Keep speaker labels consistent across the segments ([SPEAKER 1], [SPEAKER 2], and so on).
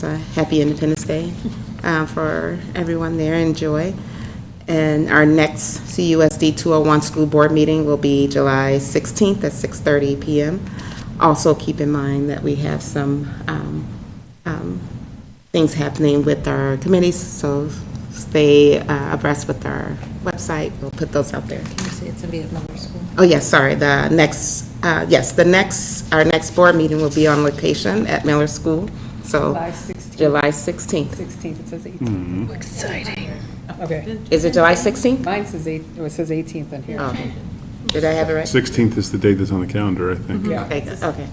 [SPEAKER 1] It's a happy Independence Day uh, for everyone there, enjoy. And our next CUSD 201 School Board meeting will be July 16th at 6:30 PM. Also, keep in mind that we have some um, um, things happening with our committees, so stay uh, abreast with our website, we'll put those out there.
[SPEAKER 2] You say it's gonna be at Miller School.
[SPEAKER 1] Oh, yes, sorry, the next, uh, yes, the next, our next board meeting will be on location at Miller School, so.
[SPEAKER 3] July 16th.
[SPEAKER 1] July 16th.
[SPEAKER 3] 16th, it says 18th. Exciting. Okay,
[SPEAKER 1] Is it July 16th?
[SPEAKER 3] mine says 8, oh, it says 18th on here.
[SPEAKER 1] Oh, Did I have it right?
[SPEAKER 4] 16th is the date that's on the calendar, I think.
[SPEAKER 3] Yeah.
[SPEAKER 1] Okay, good, okay.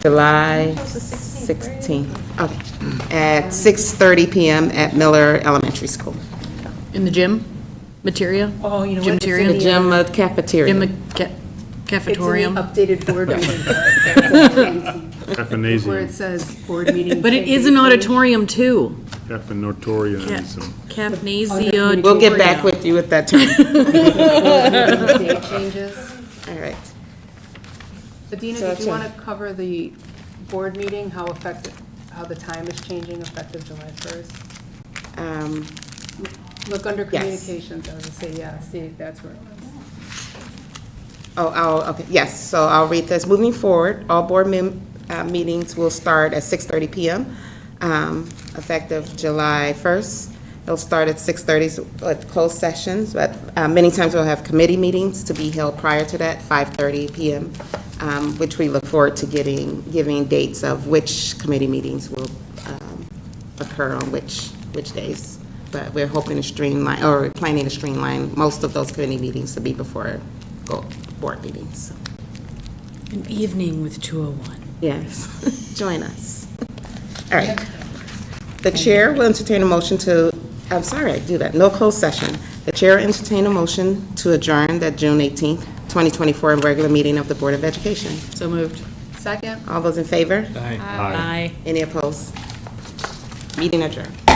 [SPEAKER 1] July 16th, okay. At 6:30 PM at Miller Elementary School.
[SPEAKER 5] In the gym? Materia?
[SPEAKER 2] Oh, you know
[SPEAKER 5] Gym
[SPEAKER 2] what? It's in
[SPEAKER 5] material?
[SPEAKER 1] The gym uh, cafeteria.
[SPEAKER 5] Gym ca-
[SPEAKER 2] It's in the
[SPEAKER 5] cafetorium?
[SPEAKER 2] updated board meeting. Where it
[SPEAKER 4] Caffeinasium,
[SPEAKER 2] says board meeting.
[SPEAKER 5] But it is an auditorium too.
[SPEAKER 4] caffeinatorianism.
[SPEAKER 5] Cafnasia.
[SPEAKER 1] We'll get back with you with that term.
[SPEAKER 2] Date changes.
[SPEAKER 1] All right.
[SPEAKER 2] Adina,
[SPEAKER 1] So
[SPEAKER 2] did
[SPEAKER 1] that's
[SPEAKER 2] you want to cover the board meeting, how effective, how the time is changing effective July 1st?
[SPEAKER 1] Um,
[SPEAKER 2] Look under
[SPEAKER 1] Yes.
[SPEAKER 2] communications, I would say, yeah, see, that's where.
[SPEAKER 1] Oh, I'll, okay, yes, so I'll read this. Moving forward, all board mem- uh, meetings will start at 6:30 PM, um, effective July 1st. They'll start at 6:30 with closed sessions, but uh, many times we'll have committee meetings to be held prior to that, 5:30 PM, um, which we look forward to getting, giving dates of which committee meetings will um, occur on which, which days. But we're hoping to streamline, or planning to streamline most of those committee meetings to be before go- board meetings.
[SPEAKER 5] An evening with 201.
[SPEAKER 1] Yes, join us. All right. The chair will entertain a motion to, I'm sorry, I do that, no closed session. The chair will entertain a motion to adjourn that June 18th, 2024 regular meeting of the Board of Education.
[SPEAKER 5] So moved.
[SPEAKER 2] Second?
[SPEAKER 1] All those in favor?
[SPEAKER 5] Aye.
[SPEAKER 1] Any opposed? Meeting adjourned.